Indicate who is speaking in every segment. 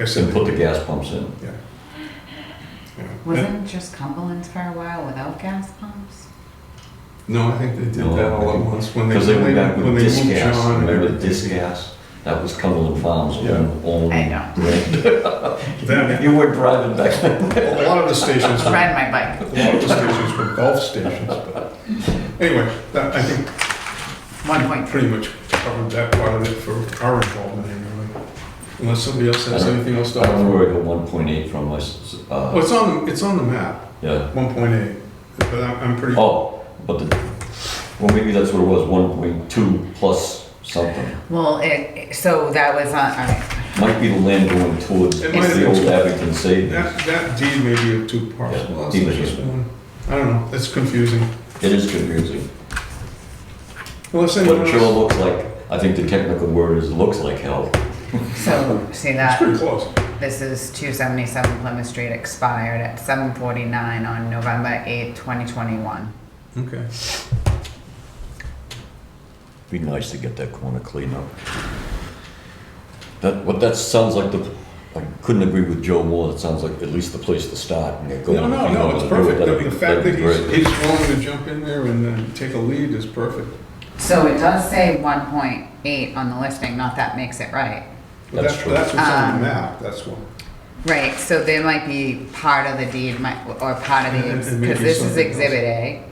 Speaker 1: I said,
Speaker 2: and put the gas pumps in.
Speaker 1: yeah.
Speaker 3: Wasn't just Cumberland's for a while without gas pumps?
Speaker 1: No, I think they did
Speaker 2: No,
Speaker 1: that all
Speaker 2: I
Speaker 1: at
Speaker 2: think-
Speaker 1: once when they,
Speaker 2: Because they
Speaker 1: when
Speaker 2: went
Speaker 1: they
Speaker 2: back
Speaker 1: when
Speaker 2: with
Speaker 1: they
Speaker 2: disc
Speaker 1: moved
Speaker 2: gas,
Speaker 1: John. and
Speaker 2: remember the
Speaker 1: everything.
Speaker 2: disc gas? That was Cumberland Farms own, own.
Speaker 3: I know.
Speaker 1: Then-
Speaker 2: You were driving back then.
Speaker 1: A lot of the stations, were-
Speaker 3: Ride my bike.
Speaker 1: a lot of the stations were golf stations, but anyway, that, I think
Speaker 3: One point
Speaker 1: pretty much covered that part of it for our involvement anyway. Unless somebody else has anything else to
Speaker 2: I remember
Speaker 1: offer.
Speaker 2: where I got one point eight from my, s- s-
Speaker 1: Well,
Speaker 2: uh,
Speaker 1: it's on, the- it's on the map,
Speaker 2: yeah,
Speaker 1: one point eight, but I'm, I'm pretty,
Speaker 2: oh, but the, well, maybe that's what it was, one point two plus something.
Speaker 3: Well, it, it- so that was on, all right.
Speaker 2: Might be the land going towards
Speaker 1: It might have
Speaker 2: the
Speaker 1: been
Speaker 2: old
Speaker 1: two.
Speaker 2: Abington savings.
Speaker 1: that, that deed may be of two parts,
Speaker 2: Yeah,
Speaker 1: well, it's
Speaker 2: deed was
Speaker 1: just
Speaker 2: just-
Speaker 1: one. I don't know, it's confusing.
Speaker 2: It is confusing.
Speaker 1: Unless anyone
Speaker 2: But it sure
Speaker 1: else,
Speaker 2: looks like, I think the technical word is looks like hell.
Speaker 3: so see
Speaker 1: it's
Speaker 3: that,
Speaker 1: pretty close.
Speaker 3: this is 277 Plymouth Street expired at 7:49 on November 8th, 2021.
Speaker 1: Okay.
Speaker 2: Be nice to get that corner cleaned up. That, what that sounds like the, I couldn't agree with Joe more, it sounds like at least the place to start and get going.
Speaker 1: No, no,
Speaker 2: If you know
Speaker 1: no,
Speaker 2: what
Speaker 1: it's
Speaker 2: to do,
Speaker 1: perfect. The
Speaker 2: that'd
Speaker 1: the
Speaker 2: be-
Speaker 1: fact that
Speaker 2: that'd be
Speaker 1: he's,
Speaker 2: great.
Speaker 1: he's willing to jump in there and uh, take a lead is perfect.
Speaker 3: So it does say 1.8 on the listing, not that makes it right.
Speaker 1: But
Speaker 2: That's
Speaker 1: that-
Speaker 2: true.
Speaker 1: That's what's on
Speaker 3: Um,
Speaker 1: the map, that's what.
Speaker 3: Right, so there might be part of the deed might, or part of
Speaker 1: And-
Speaker 3: the,
Speaker 1: and maybe
Speaker 3: because this is
Speaker 1: something else.
Speaker 3: Exhibit A,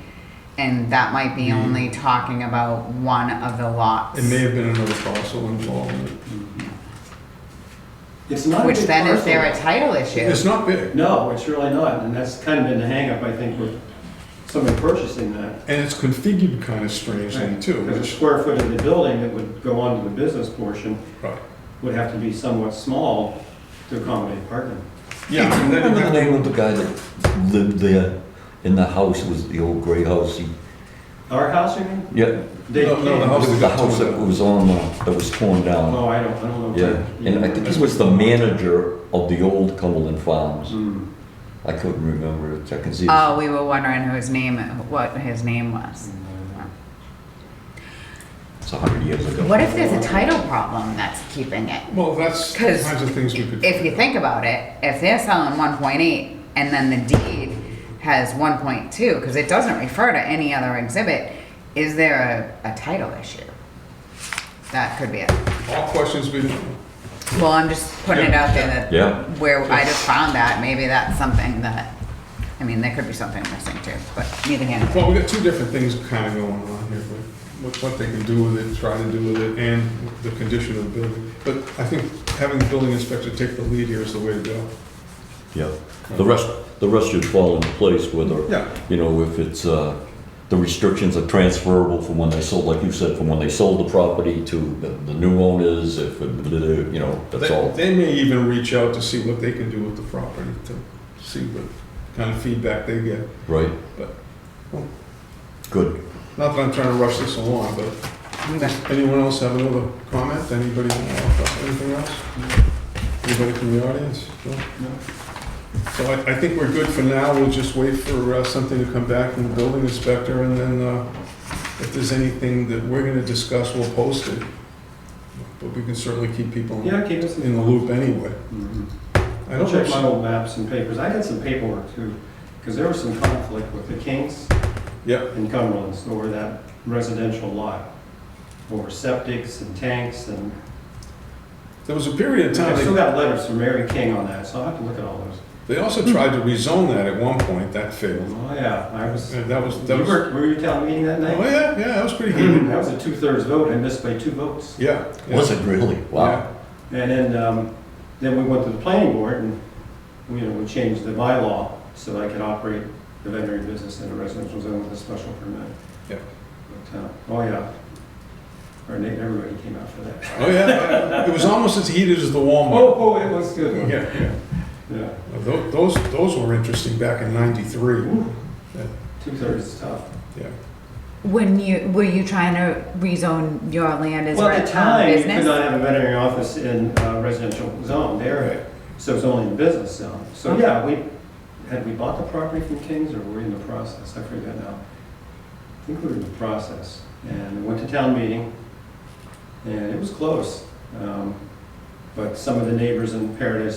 Speaker 3: and that might be
Speaker 1: Hmm.
Speaker 3: only talking about one of the lots.
Speaker 1: It may have been another parcel involved.
Speaker 4: It's not a
Speaker 3: Which
Speaker 4: big
Speaker 3: then is there a
Speaker 4: parcel.
Speaker 3: title issue?
Speaker 1: It's not big,
Speaker 4: No, it's really not, and that's kind of been the hangup, I think, with somebody purchasing that.
Speaker 1: and it's configured kind of strangely too,
Speaker 4: Because the
Speaker 1: which,
Speaker 4: square foot of the building that would go onto the business portion
Speaker 1: right.
Speaker 4: would have to be somewhat small to accommodate parking.
Speaker 1: Yeah, I mean, that-
Speaker 2: Remember the
Speaker 1: that-
Speaker 2: name of the guy that lived there in the house, it was the old gray house, he,
Speaker 4: Our house, you mean?
Speaker 2: yeah,
Speaker 4: They
Speaker 1: No, no, the
Speaker 4: came.
Speaker 1: house- that
Speaker 2: the
Speaker 1: got torn
Speaker 2: house that
Speaker 1: down.
Speaker 2: was on, uh, that was torn down.
Speaker 4: Oh, I don't, I don't know.
Speaker 2: Yeah, and I think he was the manager of the old Cumberland Farms.
Speaker 4: Hmm.
Speaker 2: I couldn't remember, it. I can see.
Speaker 3: Oh, we were wondering who his name, what his name was.
Speaker 2: It's a hundred years ago.
Speaker 3: What if there's a title problem that's keeping it?
Speaker 1: Well, that's the
Speaker 3: 'Cause
Speaker 1: kinds of things we could.
Speaker 3: If you think about it, if they're selling one point eight and then the deed has one point two, because it doesn't refer to any other exhibit, is there a, a title issue? That could be it.
Speaker 1: All questions we,
Speaker 3: Well, I'm just putting it out there that.
Speaker 2: Yeah.
Speaker 3: Where I just found that, maybe that's something that, I mean, there could be something missing too, but neither here nor there.
Speaker 1: well, we got two different things kind of going on here, but what, what they can do with it, try to do with it, and the condition of the building. But I think having the building inspector take the lead here is the way to go.
Speaker 2: Yeah, the rest, the rest should fall into place whether,
Speaker 1: Yeah,
Speaker 2: you know, if it's, uh, the restrictions are transferable from when they sold, like you said, from when they sold the property to the, the new owners, if, it- you know, that's
Speaker 1: They,
Speaker 2: all.
Speaker 1: they may even reach out to see what they can do with the property, to see what kind of feedback they get.
Speaker 2: Right?
Speaker 1: But-
Speaker 2: Good.
Speaker 1: Not that I'm trying to rush this along, but anyone else have another comment? Anybody, else? anything else? Anybody from the audience? No?
Speaker 4: No.
Speaker 1: So I, I think we're good for now. We'll just wait for uh, something to come back from the building inspector, and then uh, if there's anything that we're gonna discuss, we'll post it. But we can certainly keep people
Speaker 4: Yeah, keep us
Speaker 1: in the loop anyway.
Speaker 4: Mhm.
Speaker 1: I
Speaker 4: I'll
Speaker 1: don't
Speaker 4: check
Speaker 1: think
Speaker 4: my old maps and papers. I had some paperwork too, because there was some conflict with the Kings
Speaker 1: Yep,
Speaker 4: in Cumberland's over that residential lot, over septics and tanks and
Speaker 1: there was a period of time.
Speaker 4: I
Speaker 1: they-
Speaker 4: still got letters from Mary King on that, so I'll have to look at all those.
Speaker 1: They also tried to rezone that at one point, that failed.
Speaker 4: Oh, yeah, I was, you
Speaker 1: And that was, that was, oh
Speaker 4: were, Hmm. were you at town meeting that night?
Speaker 1: yeah, yeah, that was pretty heated.
Speaker 4: That was a two-thirds vote, I missed by two votes.
Speaker 1: Yeah. yeah,
Speaker 2: Was it really? Wow.
Speaker 1: yeah.
Speaker 4: And then, um, then we went to the planning board and, you know, we changed the bylaw so that I could operate the veterinary business in a residential zone with a special permit.
Speaker 1: Yeah.
Speaker 4: But, uh, Oh, yeah. Our na- everybody came out for that.
Speaker 1: Oh, yeah, yeah, it was almost as heated as the
Speaker 4: Oh,
Speaker 1: Walmart.
Speaker 4: oh, it was good.
Speaker 1: Yeah, yeah.
Speaker 4: Yeah,
Speaker 1: Tho- Those, those were interesting back in ninety-three.
Speaker 4: two-thirds is tough.
Speaker 1: Yeah.
Speaker 3: When you, were you trying to rezone your land as
Speaker 4: Well,
Speaker 3: a
Speaker 4: at the
Speaker 3: town
Speaker 4: time, you could
Speaker 3: business?
Speaker 4: not have a veterinary office in a residential zone
Speaker 1: Right.
Speaker 4: there, so it's only in business zone. So, yeah, we, had we bought the property from Kings, or were we in the process? I forget now. I think we were in the process, and we went to town meeting, and it was close. Um, But some of the neighbors in Paradise